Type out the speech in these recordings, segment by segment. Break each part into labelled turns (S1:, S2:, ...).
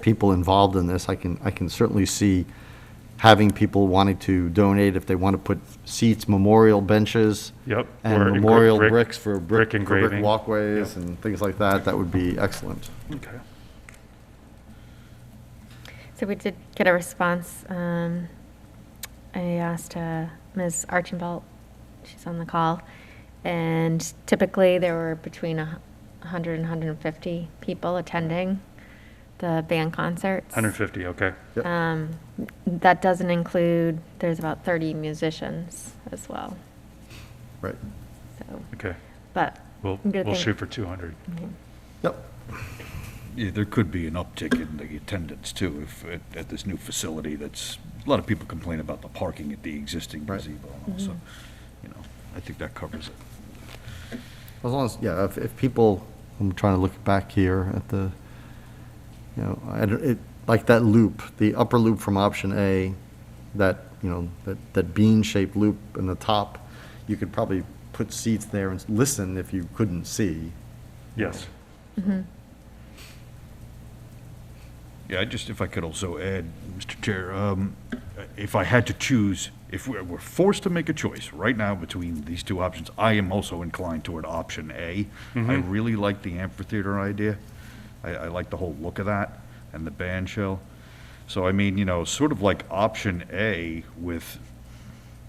S1: people involved in this, I can, I can certainly see having people wanting to donate if they want to put seats, memorial benches.
S2: Yep,
S1: And
S2: or engra-
S1: memorial
S2: brick-
S1: bricks for brick,
S2: brick
S1: for brick
S2: engraving.
S1: walkways
S2: Yep.
S1: and things like that, that would be excellent.
S2: Okay.
S3: So we did get a response. um, I asked uh, Ms. Archibald, she's on the call, and typically there were between a hu- 100 and 150 people attending the band concerts.
S2: 150, okay.
S1: Yep.
S3: Um, That doesn't include, there's about 30 musicians as well,
S1: Right.
S3: so,
S2: Okay.
S3: but.
S2: We'll,
S3: I'm gonna
S2: we'll
S3: think-
S2: shoot for 200.
S1: Yep.
S4: Yeah, there could be an uptick in the attendance too, if, at, at this new facility that's, a lot of people complain about the parking at the existing
S1: Right.
S4: gazebo and all, so, you know, I think that covers it.
S1: As long as, yeah, if, if people, I'm trying to look back here at the, you know, I don't, it, like that loop, the upper loop from option A, that, you know, that, that bean-shaped loop in the top, you could probably put seats there and listen if you couldn't see.
S2: Yes.
S4: Yeah, I just, if I could also add, Mr. Chair, um, if I had to choose, if we're, we're forced to make a choice right now between these two options, I am also inclined toward option A. I really like the amphitheater idea. I, I like the whole look of that and the band shell. So I mean, you know, sort of like option A with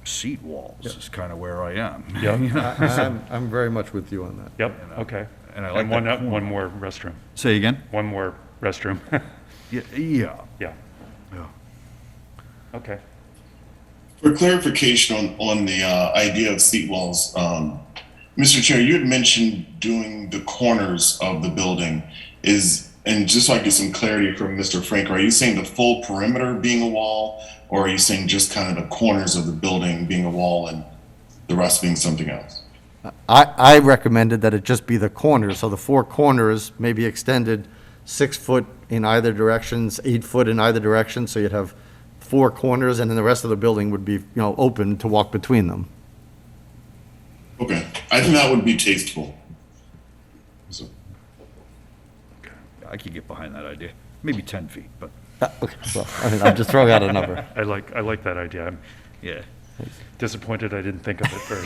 S4: seat walls is kind of where I am.
S2: Yeah.
S4: You know?
S1: I- I'm, I'm very much with you on that.
S2: Yep, okay.
S4: and I like
S2: one,
S4: that
S2: uh, one more restroom,
S4: Say again?
S2: one more restroom.
S4: Yeah, yeah.
S2: Yeah,
S4: yeah.
S2: okay.
S5: For clarification on, on the uh, idea of seat walls, um, Mr. Chair, you had mentioned doing the corners of the building. Is and just so I get some clarity from Mr. Frank, are you saying the full perimeter being a wall, or are you saying just kind of the corners of the building being a wall and the rest being something else?
S1: I, I recommended that it just be the corners, so the four corners may be extended six foot in either directions, eight foot in either direction, so you'd have four corners, and then the rest of the building would be, you know, open to walk between them.
S5: Okay, I think that would be tasteful. So,
S4: I could get behind that idea. Maybe 10 feet, but
S1: Ah, Okay, well, I mean, I'm just throwing out a number.
S2: I like, I like that idea. I'm
S4: yeah.
S2: disappointed I didn't think of it first.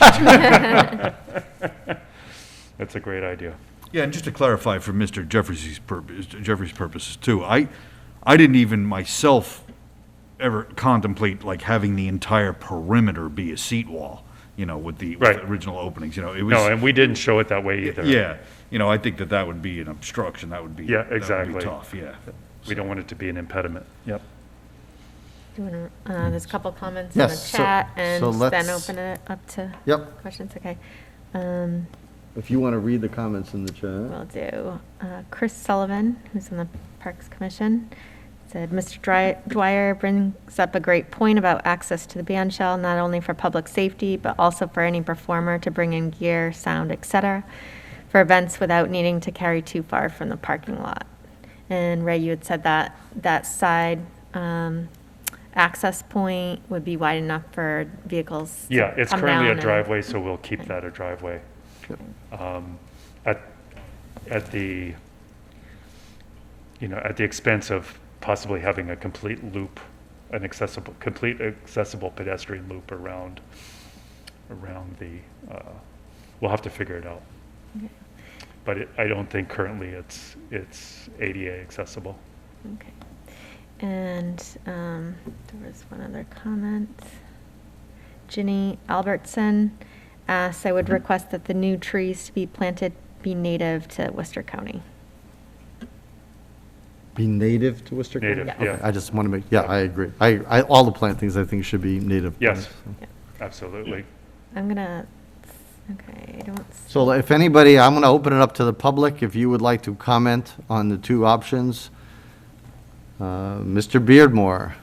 S2: That's a great idea.
S4: Yeah, and just to clarify for Mr. Jeffries' purpose, Jeffrey's purposes too, I, I didn't even myself ever contemplate like having the entire perimeter be a seat wall, you know, with the, with the
S2: Right.
S4: original openings, you know, it was.
S2: No, and we didn't show it that way either.
S4: Yeah, you know, I think that that would be an obstruction, that would be.
S2: Yeah,
S4: that would be
S2: exactly.
S4: Tough, yeah.
S2: We don't want it to be an impediment. Yep.
S3: do you wanna, uh, There's a couple comments in the
S1: Yes, so-
S3: chat,
S1: so
S3: and
S1: let's-
S3: then open it up to
S1: Yep.
S3: questions, okay? Um,
S1: If you want to read the comments in the chat.
S3: Will do. Uh, Chris Sullivan, who's on the Parks Commission, said, "Mr. Dry- Dwyer brings up a great point about access to the band shell, not only for public safety, but also for any performer to bring in gear, sound, et cetera, for events without needing to carry too far from the parking lot." And Ray, you had said that, that side um, access point would be wide enough for vehicles to
S2: Yeah, it's
S3: come
S2: currently a
S3: down and-
S2: driveway, so we'll keep that a driveway. Um, At, at the, you know, at the expense of possibly having a complete loop, an accessible, complete accessible pedestrian loop around, around the, uh, we'll have to figure it out. But it- I don't think currently it's, it's ADA accessible.
S3: Okay. And um, there was one other comment. Ginny Albertson asks, I would request that the new trees to be planted be native to Worcester County.
S1: Be native to Worcester County?
S2: Native,
S1: Okay,
S2: yeah.
S1: I just want to make, yeah, I agree. I, I, all the plantings, I think, should be native.
S2: Yes.
S1: plants.
S2: Absolutely.
S3: I'm gonna, okay, I don't, s-
S1: So if anybody, I'm going to open it up to the public, if you would like to comment on the two options. Uh, Mr. Beardmore,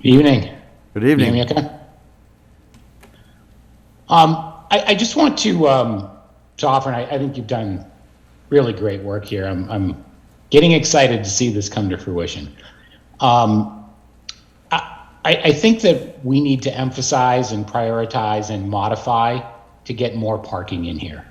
S6: Evening.
S1: good
S6: Can you hear me
S1: evening.
S6: okay? Um, I, I just want to, um, to offer, and I, I think you've done really great work here. I'm, I'm getting excited to see this come to fruition. Um, I, I I think that we need to emphasize and prioritize and modify to get more parking in here.